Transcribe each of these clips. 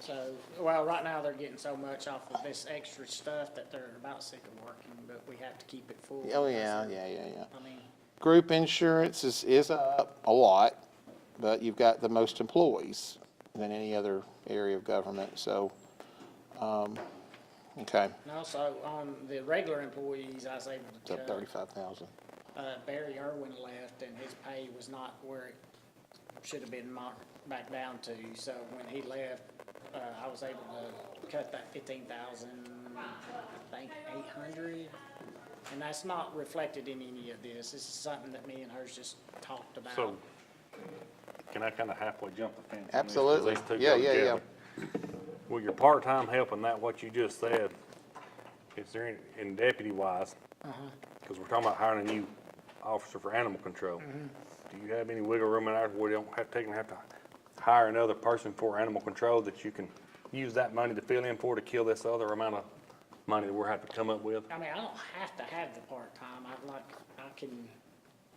So, well, right now they're getting so much off of this extra stuff that they're about sick of working, but we have to keep it full. Oh, yeah, yeah, yeah, yeah. I mean, Group insurance is, is up a lot, but you've got the most employees than any other area of government, so, um, okay, and also on the regular employees, I was able it's to up cut, thirty-five thousand. uh, Barry Irwin left and his pay was not where it should have been marked back down to. So when he left, uh, I was able to cut that fifteen thousand, I think eight hundred. And that's not reflected in any of this. This is something that me and hers just talked about. So, can I kinda halfway jump the fence? on this, 'cause Absolutely. these two Yeah, go yeah, yeah. together? Well, your part-time help and that, what you just said, is there, any- in deputy wise, Uh-huh. cause we're talking about hiring a new officer for animal control. Mm-hmm. Do you have any wiggle room in there where you don't have, to have to hire another person for animal control that you can use that money to fill in for to kill this other amount of money that we're having to come up with? I mean, I don't have to have the part-time, I'd like, I can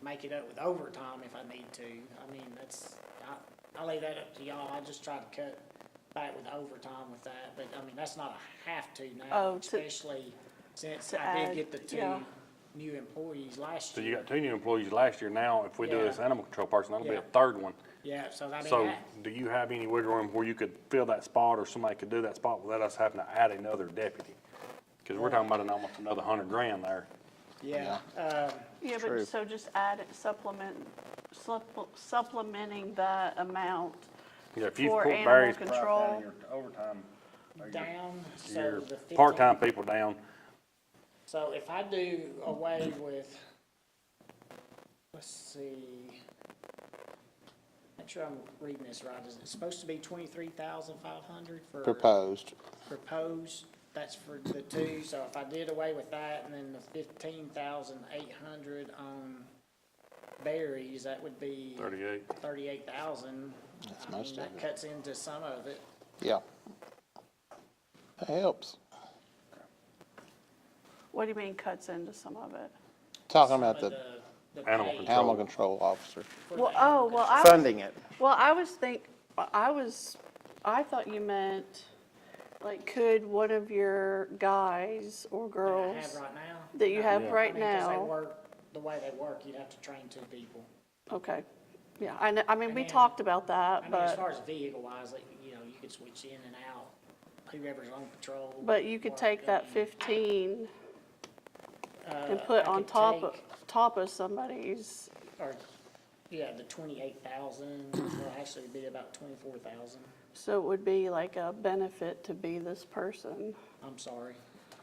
make it up with overtime if I need to, I mean, that's, I, I leave that up to y'all, I just try to cut back with overtime with that, but, I mean, that's not a have to now, Oh, to- especially since to I did add, get the two yeah. new employees last So you year. got two new employees last year, now if we do this Yeah. animal control person, that'll be a Yeah. third one. Yeah, so I mean, So, that, do you have any wiggle room where you could fill that spot, or somebody could do that spot without us having to add another deputy? Cause we're talking about an, almost another hundred grand there. yeah, um, Yeah, True. but so just add it, supplement, supple- supplementing that amount. Yeah, if you For put animal Barry's part down, control. your overtime, or your- down, so your the fifteen. part-time people down, So if I do away with, let's see, make sure I'm reading this right, is it supposed to be twenty-three thousand five hundred for? Proposed, Proposed, that's for the two, so if I did away with that and then the fifteen thousand eight hundred on berries, that would be thirty-eight. thirty-eight thousand. That's most of That it. cuts into some of it. yeah. That helps. What do you mean cuts into some of it? Talking about Some of the the Animal pay control. animal control officer. for the Well, animal oh, well, control. I. was- funding it. Well, I was think, I was, I thought you meant, like, could one of your guys or that I girls have right now. that you have Yeah. right I mean, 'cause they now? work The way they work, you'd have to train two people. Okay, yeah, I know, I mean, we mean- talked about I that, mean, as but, far as vehicle wise, like, you know, you could switch in and out, whoever's on patrol. but you could work, take that and, fifteen and uh, put I on could top of, take- top of somebody's, Or, yeah, the twenty-eight thousand, well, actually it'd be about twenty-four thousand, so it would be like a benefit to be this person. I'm sorry.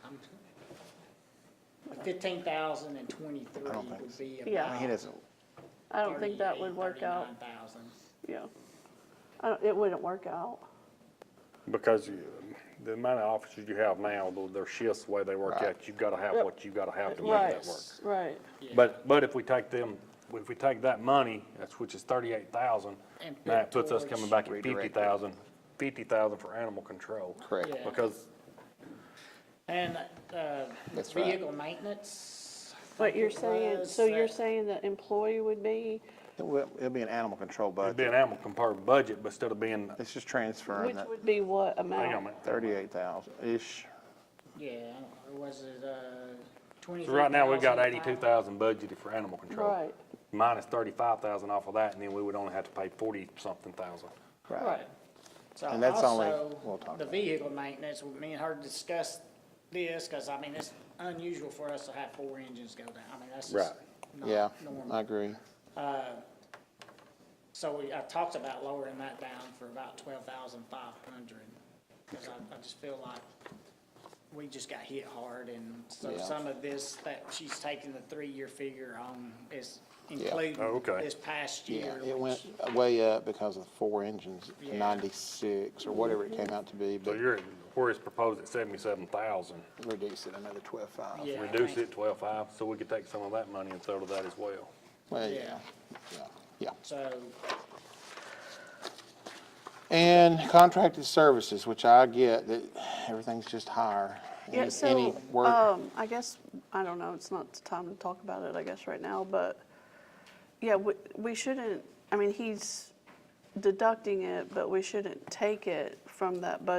I'm Fifteen thousand and twenty-three don't think would be Yeah. about He doesn't, I don't think that would work out, 39,000. yeah. I don't, it wouldn't work out, Because you, the amount of officers you have now, though, their shifts, the way they work Right. out, you gotta have what you gotta have to make right, that work. right. But, but if we take them, if we take that money, that's which is thirty-eight thousand, And put that puts us towards- coming back at Redirect fifty it. thousand, fifty thousand for animal control. correct. Yeah. Because And, uh, That's right. vehicle maintenance. I But think you're it saying, was so you're that- saying that employee would be, It'll it'll be an animal control it'd be budget. an animal control budget, but instead of being, It's just transferring which that would be what hang on a amount? minute. thirty-eight thousand-ish. Yeah, I don't know, was it, uh, twenty-three So thousand? right now, we've got eighty-two thousand budgeted for animal control. Right. Minus thirty-five thousand off of that, and then we would only have to pay forty-something thousand. Right. So And that's only- we'll also, talk the about it. vehicle maintenance, me and her discussed this, cause I mean, it's unusual for us to have four engines go down, I mean, that's just not Yeah, I normal. agree. So we, I talked about lowering that down for about twelve thousand five hundred, cause I, I just feel like we just got hit hard, and so Yeah. some of this, that she's taking the three-year figure on is Oh, including okay. this past Yeah, year. it which- went way up because of the four engines, Yeah. ninety-six or whatever it came out to be, So but you're, at- where it's proposed at seventy-seven thousand, reduced it another twelve-five. Yeah, I reduce think- it twelve-five, so we could take some of that money and throw to that as well. Well, yeah, Yeah. yeah, yeah. So, And contracted services, which I get, that everything's just higher. Yeah, Any- any so, work- um, I guess, I don't know, it's not the time to talk about it, I guess, right now, but, yeah, we, we shouldn't, I mean, he's deducting it, but we shouldn't take it from that budget